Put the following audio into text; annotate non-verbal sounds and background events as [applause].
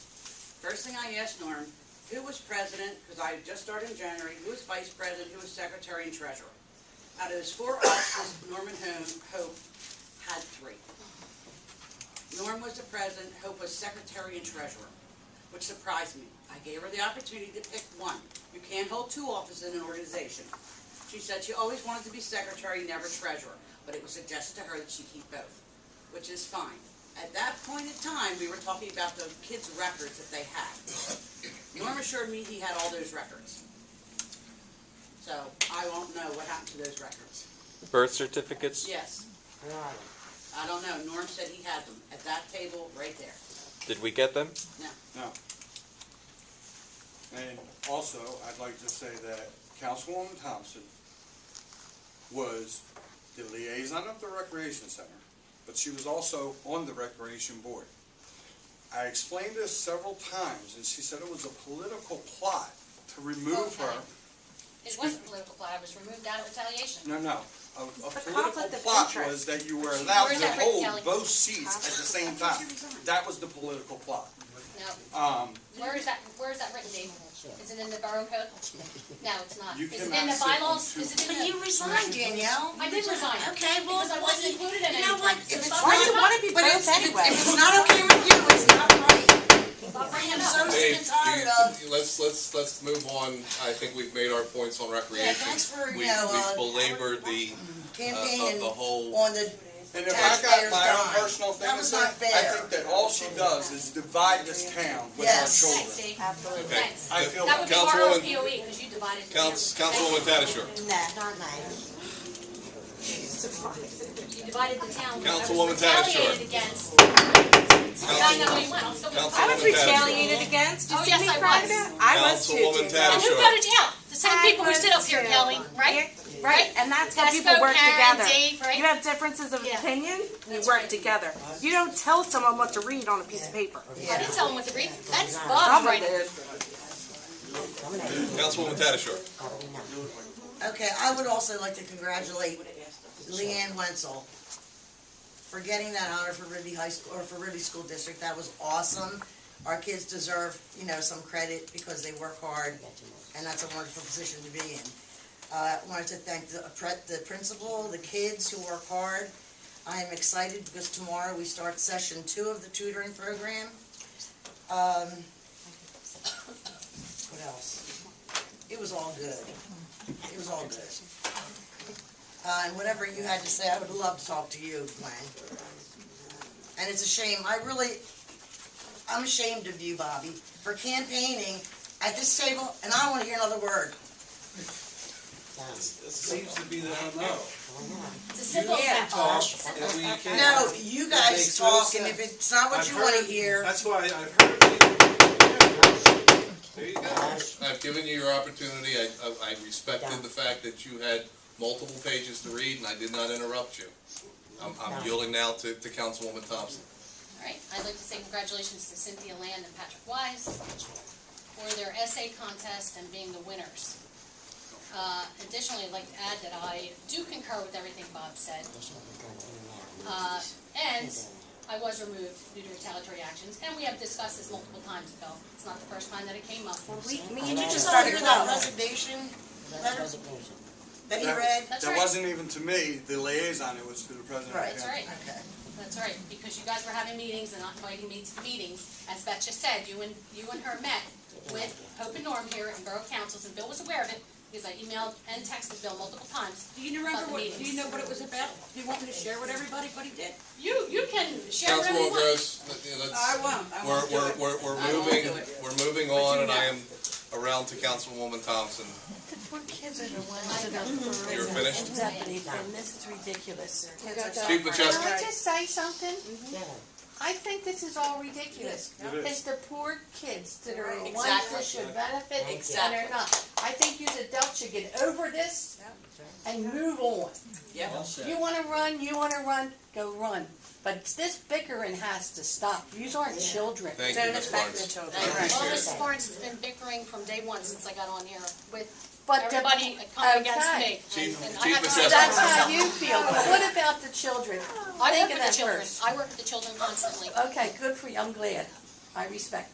First thing I asked Norm, who was president, because I had just started in January, who was vice president, who was secretary and treasurer? Out of those four offices, Norman Ho- Hope had three. Norm was the president, Hope was secretary and treasurer, which surprised me. I gave her the opportunity to pick one. You can't hold two offices in an organization. She said she always wanted to be secretary, never treasurer, but it was suggested to her that she keep both, which is fine. At that point in time, we were talking about the kids' records that they had. Norm assured me he had all those records. So I won't know what happened to those records. Birth certificates? Yes. I don't know. Norm said he had them at that table right there. Did we get them? No. No. And also, I'd like to say that Councilwoman Thompson was the liaison of the Recreation Center, but she was also on the Recreation Board. I explained this several times, and she said it was a political plot to remove her. It wasn't political plot, it was removed out of retaliation. No, no, a, a It's a political conflict of plot interest. was that you were allowed Where's to that hold retaliation? both seats at the same time. That was the political plot. No, Um, where is that, where is that written, Dave? Is it in the borough code? No, it's not. You Is it in cannot the sit on bylaws? two- Is it in But the? you resigned, Danielle. I did resign. Okay, well, Because I wasn't well, included in You know what? anything. If it's Stop not, bringing it up. but if it's, if it's not okay with you, it's not right. Stop bringing I'm it so up. sick and Dave, do tired you- of. do you- Let's, let's, let's move on. I think we've made our points on recreation. thanks for, you We- know, uh, We've belabored the, uh, campaign the whole- on the, And if I got my Taxpayers own die. personal thing That to was say, I not fair. think that all she does is divide this town with our Yes. Thanks, children. Dave. okay. Thanks. I feel That would be our Councilwoman- POE, because E, you divided. the Council, town. Councilwoman Tatasciore. nah, not nice. You divided the town. I was Councilwoman Tatasciore. retaliated against. I know Council- where you went. I'm still gonna Councilwoman fight. was retaliated against. Oh, yes, I was. I was too. Councilwoman Danielle. And who Tatasciore. voted you out? The same people who sit up here, Kelly, right? Right, and that's how That's people both work Karen, together. Dave, right? You have differences of Yeah. opinion, you That's work right. together. You don't tell someone what to read on a piece of paper. I didn't tell them what to read. That's Bob's Someone right. did. Councilwoman Tatasciore. Okay, I would also like to congratulate Leanne Wenzel for getting that honor for Ribby High School, or for Ribby School District. That was awesome. Our kids deserve, you know, some credit because they work hard, and that's a wonderful position to be in. Uh, I wanted to thank the pre- the principal, the kids who work hard. I am excited because tomorrow we start session two of the tutoring program. Um, [coughs] What else? It was all good. It was all good. Uh, and whatever you had to say, I would love to talk to you, Glenn. And it's a shame, I really, I'm ashamed of you, Bobby, for campaigning at this table, and I don't wanna hear another word. It seems to be that I know. It's as simple as that, Bob. Talk, and we can't. No, you guys makes no talk, and if sense. it's not what I've you wanna heard- hear, That's why I've heard you. There you go. I've given you your opportunity. I, I- I respected the fact that you had multiple pages to read and I did not interrupt you. I'm, I'm yielding now to, to Councilwoman Thompson. All right, I'd like to say congratulations to Cynthia Land and Patrick Wise for their essay contest and being the winners. Uh, Additionally, I'd like to add that I do concur with everything Bob said. Uh, And I was removed due to retaliatory actions, and we have discussed this multiple times, Bill. It's not the first time that it came up. Me did and you you just just all started hear that growing. resignation letter that he read? That's That right. wasn't even to me, the liaison, it was to the president. of the Right. That's council. right. Okay. That's right, because you guys were having meetings and not inviting me to the meetings. As Beth just said, you and, you and her met with Hope and Norm here in Borough Councils, and Bill was aware of it, because I emailed and texted Bill multiple times. Do you remember what, do you know what it was about? Do you want me to share what everybody, but he did? You, you can share whatever you Councilwoman want. Gross, let- let's. I won't, I We're, won't do we're, it. we're, we're I won't moving, do it. we're moving on, and I am around to Councilwoman Thompson. Mm-hmm. You're finished? Deputy, and this is ridiculous. Chief Can Macheski, I just say something? Mm-hmm. I think this is all ridiculous. It's the poor kids that are the ones Exactly. that should benefit and Exactly. they're not. I think you adults should get over this and move on. Yeah. You wanna run, you wanna run, go run. But it's this bickering has to stop. Yous aren't children. thank you, Ms. Lawrence. Like, All this Appreciate sports has been bickering from day one since I got on here with But the- everybody coming against okay. me. Chief- and- and I Chief have to Macheski. That's protect how myself. you feel, but what about the children? I work Think of with the that children. first. I work with the children constantly. Okay, good for you, I'm glad. I respect